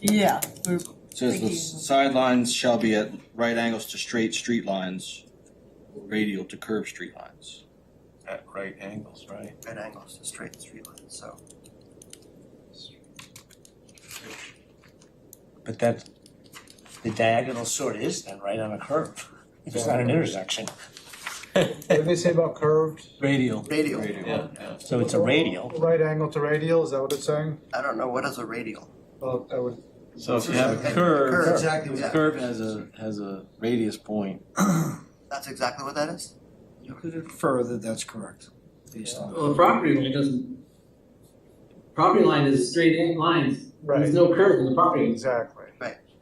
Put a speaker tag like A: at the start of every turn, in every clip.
A: Yeah, we're,
B: Says the
A: Thinking.
B: sidelines shall be at right angles to straight street lines, radial to curved street lines.
C: at right angles, right?
D: Right angles to straight street lines, so.
E: But that, the diagonal sort of is then, right, on a curve, if it's not an intersection.
F: What did they say about curved?
E: Radial.
D: Radial,
C: Yeah, yeah.
E: So it's a radial.
F: Right angle to radial, is that what it's saying?
D: I don't know, what is a radial?
F: Well, I would,
C: So if you have a curve,
D: Curve.
C: exactly, the curve has a, has a radius point.
D: That's exactly what that is?
G: You could infer that that's correct, based on.
H: Well, the property line doesn't, property line is straight lines. There's
F: right,
H: no curve in the property.
F: exactly.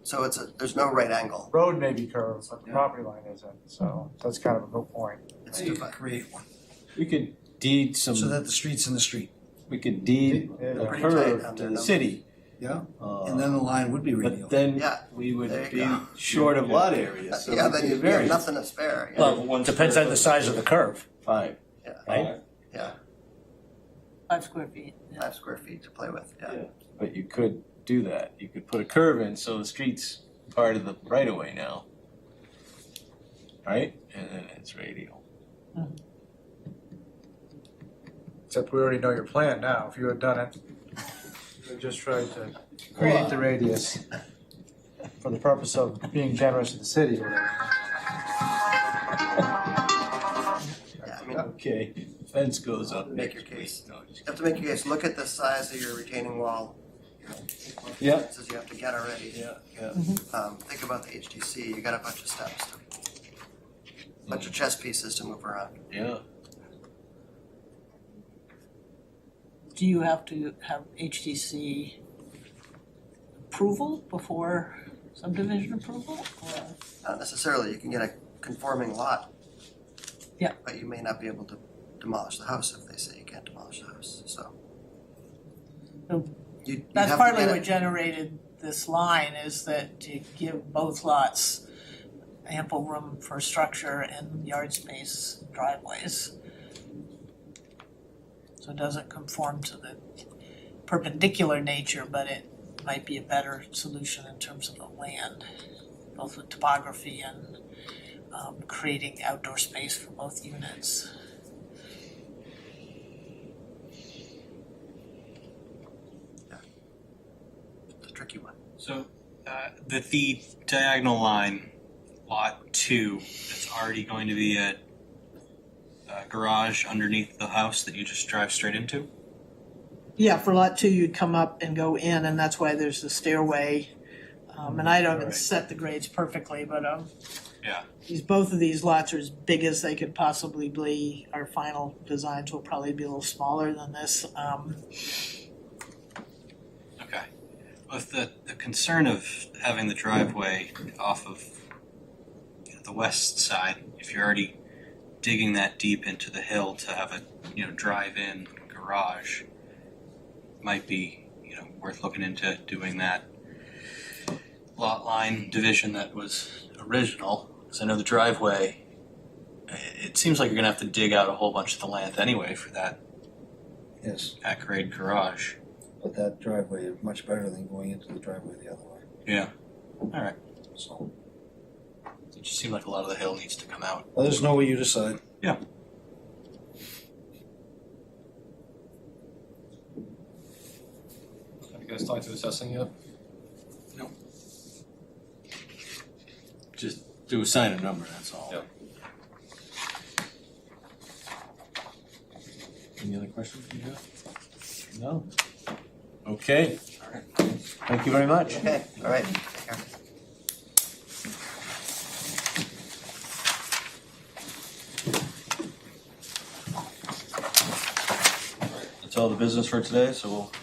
D: So it's a, there's no right angle,
F: Road may be curved, but the property line isn't, so that's kind of a good point.
D: it's
G: You
D: defined.
G: could create one,
C: We could deed some,
G: so that the street's in the street,
C: we could deed
F: Yeah.
C: a
D: Pretty tight
C: curve
D: on
C: to
D: their
C: the
D: numbers.
C: city.
G: Yeah.
C: Uh,
G: and then the line would be radial.
C: But then
D: Yeah.
C: we
D: There
C: would
D: you
C: be
D: go.
C: short of lot area, so
D: Yeah,
C: it'd
D: then
C: be a
D: you have
C: variance.
D: nothing to spare, yeah.
E: Well, depends on the size of the curve,
C: Five.
E: right?
A: five square feet.
D: five square feet to play with, yeah.
C: Yeah. But you could do that. You could put a curve in, so the street's part of the right of way now. Right? And then it's radial.
F: Except we already know your plan now, if you had done it. we Just tried to create the radius for the purpose of being generous to the city.
D: Yeah, I mean, you
C: Okay, fence goes up next
D: Make your
C: week.
D: case.
C: No, just-
D: have to make your case, look at the size of your retaining wall.
C: Yeah.
D: Says you have to get already,
C: Yeah, yeah.
D: um, think about the HDC, you got a bunch of steps, bunch of chess pieces to move around.
C: Yeah.
A: Do you have to have HDC approval before subdivision approval? Or
D: Not necessarily, you can get a conforming lot.
A: Yeah.
D: But you may not be able to demolish the house if they say you can't demolish the house, so.
A: Oh.
D: You, you
A: That's
D: have to
A: partly
D: get
A: what
D: it,
A: generated this line is that to give both lots ample room for structure and yard space driveways. So it doesn't conform to the perpendicular nature, but it might be a better solution in terms of the land, both with topography and um creating outdoor space for both units.
D: the tricky one.
I: So, uh, the, the diagonal line, lot two, it's already going to be a, a garage underneath the house that you just drive straight into?
A: Yeah, for lot two, you'd come up and go in, and that's why there's the stairway. Um, and I don't
I: Right.
A: set the grades perfectly, but, um.
I: Yeah.
A: These, both of these lots are as big as they could possibly be. Our final designs will probably be a little smaller than this, um.
I: Okay. With the, the concern of having the driveway off of you know, the west side, if you're already digging that deep into the hill to have a, you know, drive-in garage, might be, you know, worth looking into doing that lot line division that was original. Because I know the driveway, i- it seems like you're gonna have to dig out a whole bunch of the land anyway for that
G: Yes,
I: at-grade garage.
G: but that driveway is much better than going into the driveway the other way,
I: All right.
G: so,
I: It just seemed like a lot of the hill needs to come out.
G: let us know what you decide.
I: Yeah.
C: Have you guys talked to assessing yet?
I: No.
C: Just do assign a number, that's all.
I: Yep.
C: Any other questions you have? No? Okay. Thank you very much.
D: Okay, all right, take care.
B: That's all the business for today, so we'll